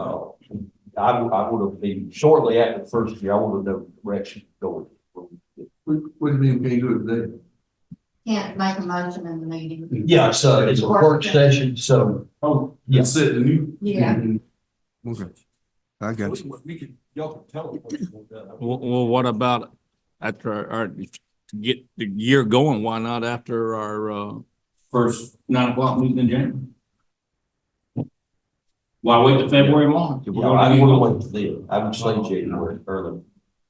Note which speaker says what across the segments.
Speaker 1: Uh, I would, I would have been shortly after the first year, I would have known the direction going.
Speaker 2: What, what do you mean, can you do it today?
Speaker 3: Can't make a motion in the meeting.
Speaker 1: Yeah, so it's a work session, so.
Speaker 2: Oh,
Speaker 1: Yeah.
Speaker 2: that's it, the new.
Speaker 3: Yeah.
Speaker 4: Okay. I got you.
Speaker 1: We could, y'all can tell them what you want done.
Speaker 5: Well, well, what about after our- our, to get the year going, why not after our, uh, first nine o'clock meeting in January? Why wait till February, March? If we're
Speaker 1: Yeah, I
Speaker 5: gonna
Speaker 1: would have
Speaker 5: do-
Speaker 1: went to them. I would say January early.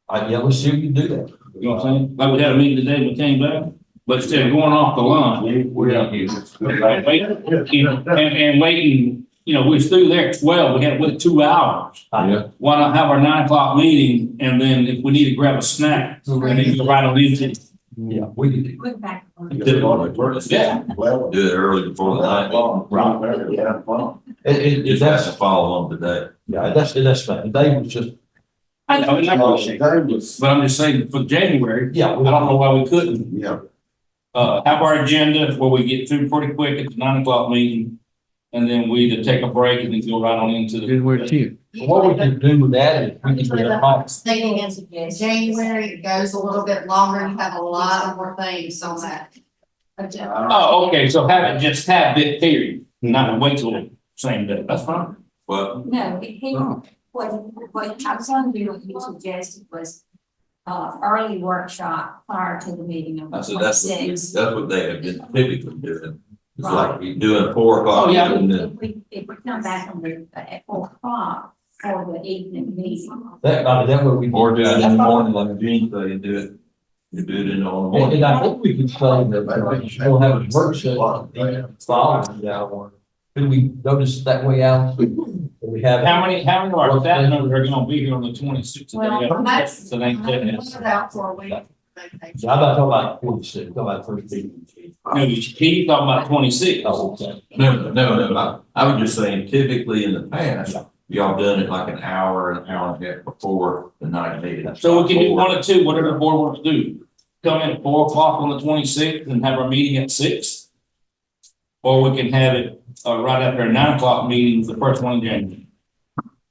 Speaker 1: I, yeah, let's see if you can do that.
Speaker 5: You know what I'm saying? Like we had a meeting today, we came back, but instead of going off the line,
Speaker 2: We're not using.
Speaker 5: right, wait, you know, and, and waiting, you know, we was through there at twelve, we had to wait two hours.
Speaker 1: Yeah.
Speaker 5: Why not have our nine o'clock meeting and then if we need to grab a snack, and then go right on into.
Speaker 1: Yeah, we could do.
Speaker 3: Look back.
Speaker 5: Yeah.
Speaker 6: Well, do it early before the night.
Speaker 1: It, it, it-
Speaker 6: Just have to
Speaker 1: that's,
Speaker 6: follow on today.
Speaker 1: yeah, that's, that's fine. They was just,
Speaker 5: I know, and I appreciate it. But I'm just saying for January,
Speaker 1: yeah.
Speaker 5: I don't know why we couldn't.
Speaker 2: Yeah.
Speaker 5: Uh, have our agenda where we get through pretty quick at the nine o'clock meeting. And then we either take a break and then go right on into the.
Speaker 4: January tenth.
Speaker 1: What we could do with that is we could get a box.
Speaker 3: Thinking is January, it goes a little bit longer, you have a lot more things on that. agenda.
Speaker 5: Oh, okay, so have it, just have that period, not wait till the same day, that's fine.
Speaker 6: But
Speaker 7: No, it came, what, what I was gonna do, what you suggested was uh, early workshop prior to the meeting of
Speaker 6: I
Speaker 7: the
Speaker 6: said, that's what,
Speaker 7: twenty-sixth.
Speaker 6: that's what they have been typically doing. It's like you doing four o'clock.
Speaker 5: Oh, yeah.
Speaker 6: and then-
Speaker 7: If we, if we come back on the, at four o'clock for the evening meeting.
Speaker 1: That, I mean, that way we. can-
Speaker 6: Or do it in the morning like Gene said, you do it, you do it in the
Speaker 1: And,
Speaker 6: morning.
Speaker 1: and I think we can tell them that uh, we'll have a work session the following hour. Could we notice that way out? We have.
Speaker 5: How many, how many of our staff members are gonna be here on the twenty-sixth?
Speaker 3: Well, that's-
Speaker 5: So they
Speaker 3: I'm
Speaker 5: can.
Speaker 3: about for a week.
Speaker 1: So I'm not talking about forty-six, I'm talking about first meeting.
Speaker 5: No, you keep talking about twenty-six.
Speaker 1: Oh, okay.
Speaker 6: No, no, no, no, I, I was just saying typically in the past, y'all done it like an hour, an hour and a half before the night meeting.
Speaker 5: So we can do one or two, whatever the board wants to do. Come in at four o'clock on the twenty-sixth and have our meeting at six. Or we can have it, uh, right after a nine o'clock meeting, the first one in January.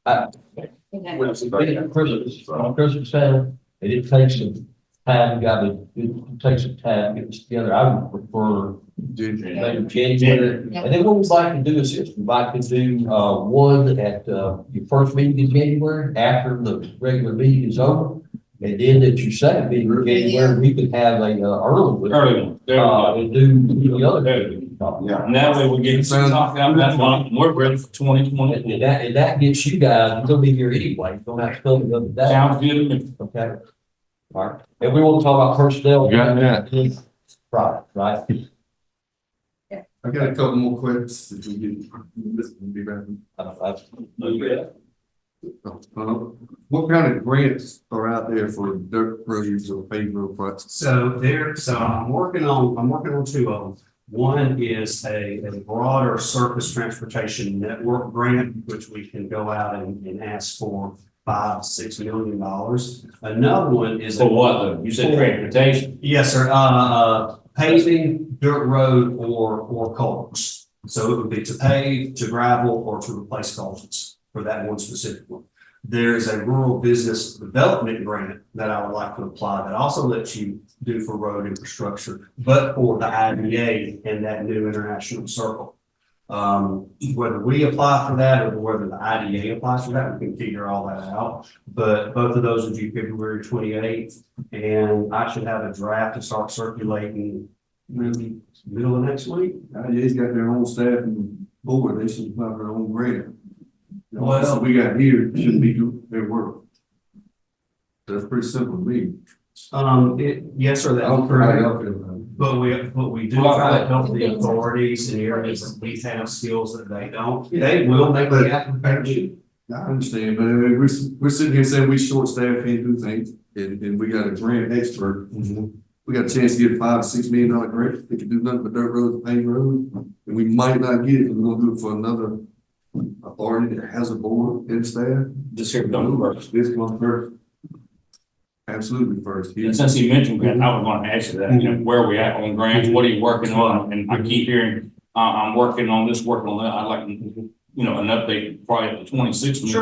Speaker 7: Okay.
Speaker 1: When it's been Christmas, on Christmas time, and it takes some time, got to, it takes some time to get this together. I would prefer maybe January. And then what we'd like to do is, is we'd like to do, uh, one at, uh, your first meeting in January, after the regular meeting is over. And then at your second meeting in January, we could have a, uh, early, one,
Speaker 5: Early one, there we
Speaker 1: uh,
Speaker 5: go.
Speaker 1: and do the other.
Speaker 5: There we
Speaker 1: Uh,
Speaker 5: go. And that way we're getting some talk out of that month, we're ready for twenty
Speaker 1: And
Speaker 5: twenty-four.
Speaker 1: that, and that gets you guys, you'll be here anyway, you don't have to come the other day.
Speaker 5: Sounds good to me.
Speaker 1: Okay. All right, and we won't talk about personnel.
Speaker 4: Got that.
Speaker 1: Right, right.
Speaker 2: I got a couple more questions if we get, this will be back.
Speaker 1: I- I-
Speaker 2: Uh, What kind of grants are out there for dirt roads or paved road projects?
Speaker 8: So there, so I'm working on, I'm working on two of them. One is a, a broader surface transportation network grant, which we can go out and, and ask for five, six million dollars. Another one is. a-
Speaker 5: For what though? Oh, You said transportation.
Speaker 8: Yes, sir, Uh, uh, paving, dirt road, or, or culverts. So it would be to pave, to gravel, or to replace culverts for that one specific one. There is a rural business development grant that I would like to apply that also lets you do for road infrastructure, but for the IDA and that new international circle. Um, whether we apply for that or whether the IDA applies for that, we can figure all that out. But both of those would be February twenty-eighth. And I should have a draft to start circulating maybe middle of next week.
Speaker 2: They's got their own staff and board, they should have their own grant. The
Speaker 8: Well-
Speaker 2: office we got here shouldn't be doing their work. That's pretty simple to me.
Speaker 8: Um, it, yes, sir,
Speaker 2: I
Speaker 8: that
Speaker 2: don't
Speaker 8: will
Speaker 2: care how
Speaker 8: correct.
Speaker 2: y'all feel about it.
Speaker 8: But we, but we do try to help the authorities in areas that we have skills that they don't. They will make the application.
Speaker 2: I understand, but I mean, we're, we're sitting here saying we short staff can't do things, and, and we got a grant expert. We got a chance to get five, six million dollar grant, they can do nothing but dirt roads, paved roads, and we might not get it, and we're gonna do it for another authority that has a board and staff.
Speaker 5: Just here, don't work.
Speaker 2: This one first. Absolutely first.
Speaker 5: And since you mentioned grant, I would want to ask you that, you know, where are we at on grants, what are you working on? And I keep hearing, uh, I'm working on this, working on that, I'd like, you know, an update probably at the twenty-sixth.